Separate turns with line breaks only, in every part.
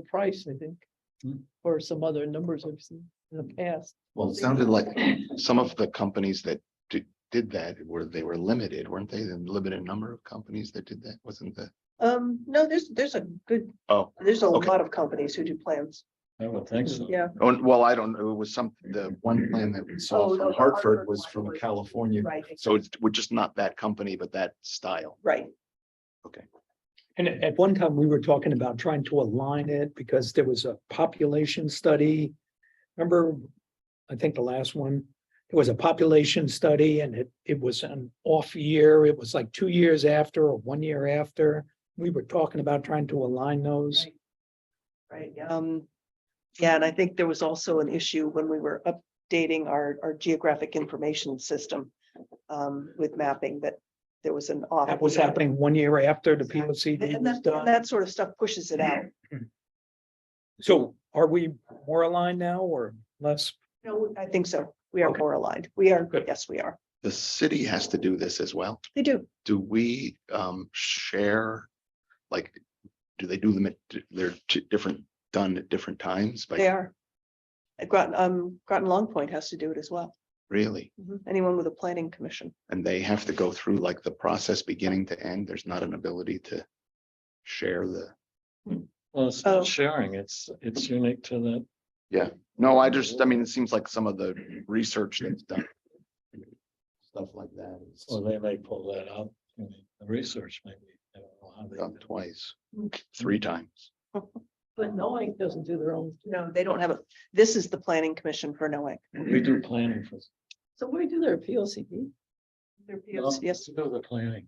the price, I think,
Hmm.
or some other numbers I've seen in the past.
Well, it sounded like some of the companies that did, did that were, they were limited, weren't they? The limited number of companies that did that, wasn't the?
Um, no, there's, there's a good,
Oh,
there's a
Okay.
lot of companies who do plans.
I would think so.
Yeah,
oh, well, I don't know. It was some, the one plan that we
Oh,
saw
no,
from
the
Hartford
Hartford
was
one
from
was-
California.
right,
So it's, we're just not that company, but that style.
right.
And at at one time, we were talking about trying to align it because there was a population study. Remember, I think the last one, it was a population study and it, it was an off year. It was like two years after or one year after. We were talking about trying to align those.
Right. Right, yeah. um, yeah, and I think there was also an issue when we were updating our, our geographic information system. Um, with mapping that there was an off.
That was happening one year after the P O C D
And
was
that, and
done.
that sort of stuff pushes it out.
So are we more aligned now or less?
No, I think so. We are
Okay.
more aligned. We are,
Good.
yes, we are.
The city has to do this as well.
They do.
Do we um share? Like, do they do them at, they're t- different, done at different times?
They
Like,
are. Uh, Groton, um, Groton Long Point has to do it as well.
really?
Mm-hmm.
Anyone with a planning commission.
And they have to go through like the process beginning to end. There's not an ability to share the.
Well, it's
Oh.
not sharing, it's, it's unique to that.
No, I just, I mean, it seems like some of the research that's done. Stuff like that is
Well, they may pull that out, in the research maybe. I don't know how they
done
do it.
twice, three times.
But
Noah doesn't do their own.
No, they don't have a, this is the planning commission for Noack.
We do planning for.
So we do their P O C D.
Their POC Yes.
We Do the planning.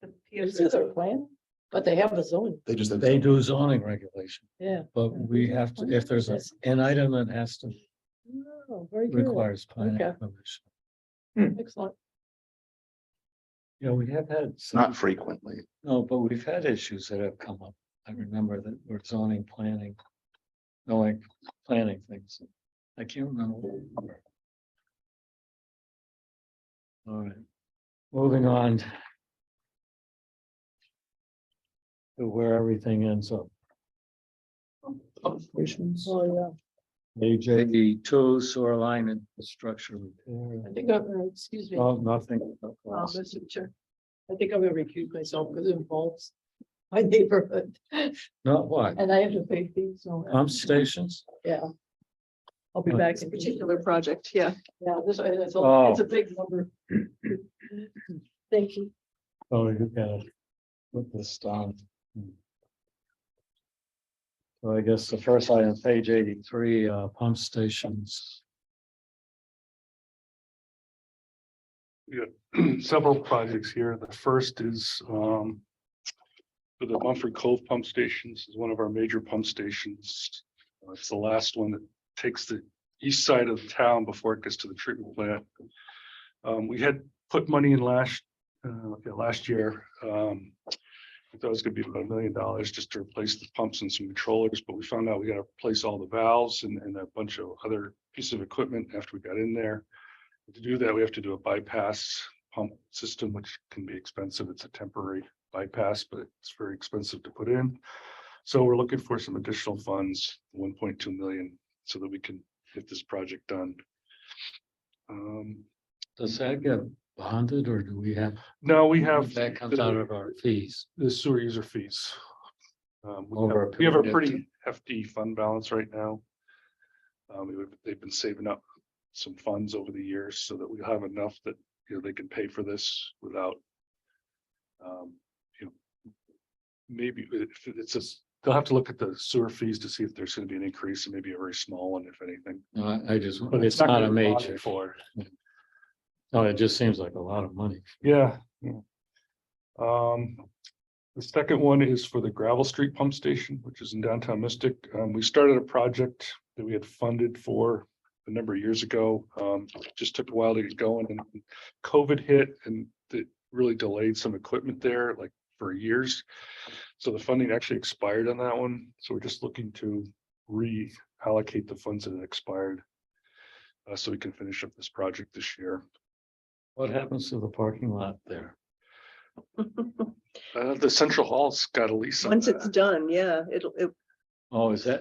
the
do their
POC
plan, but they have a zone,
They just.
They do zoning regulation,
yeah.
but we have to, if there's a- an item that has to,
Oh, very good.
requires planning
Okay.
commission.
Excellent.
Yeah, we have had. some-
Not frequently.
No, but we've had issues that have come up. I remember that we're zoning, planning, knowing, planning things. I can't remember. what they were. All right, moving on. To where everything ends up.
Oh,
AJ two sewer line and structure
yeah.
repair.
I think I've, uh, excuse me, uh,
Oh, nothing.
Mr. Chair, I think I'm gonna recuse myself because it involves my neighborhood
Not what?
and I have to pay fees, so. uh,
Pump stations?
Yeah. I'll be back in particular.
project, yeah.
Yeah, this, uh, it's a, it's
Oh.
a big number. Thank you.
Oh, you gotta put this down. So I guess the first item, page eighty-three, uh, pump stations.
several projects here. The first is um. The Mumford Cove Pump Stations is one of our major pump stations. Uh, It's the last one that takes the east side of town before it gets to the treatment plant. Um, we had put money in last, uh, okay, last year, um. I thought it was gonna be about a million dollars just to replace the pumps and some controllers, but we found out we gotta replace all the valves and, and a bunch of other pieces of equipment after we got in there. To do that, we have to do a bypass pump system, which can be expensive. It's a temporary bypass, but it's very expensive to put in. So we're looking for some additional funds, one point two million, so that we can get this project done. Um,
Does that get bonded or do we have?
now we have
That comes out
the
of our fees.
the sewer user fees. Um, we
Over
have-
a
we have a
period of
pretty hefty fund balance right now. Um, we- they've been saving up some funds over the years so that we have enough that, you know, they can pay for this without. Um, you know. Maybe uh, if it's just, they'll have to look at the sewer fees to see if there's gonna be an increase and maybe a very small one, if anything.
No, I, I just,
But
it's not
gonna
a
be bonded
major.
For.
No, it just seems like a lot of money.
Yeah. yeah. Um, the second one is for the gravel street pump station, which is in downtown Mystic. Um, we started a project that we had funded for a number of years ago. Um, it just took a while to get going and COVID hit and it really delayed some equipment there like for years. So the funding actually expired on that one. So we're just looking to reallocate the funds that had expired. Uh, so we can finish up this project this year.
What happens to the parking lot there?
Uh, the central hall's got a lease on
Once it's
that.
done, yeah, it'll, it,
Oh, is that,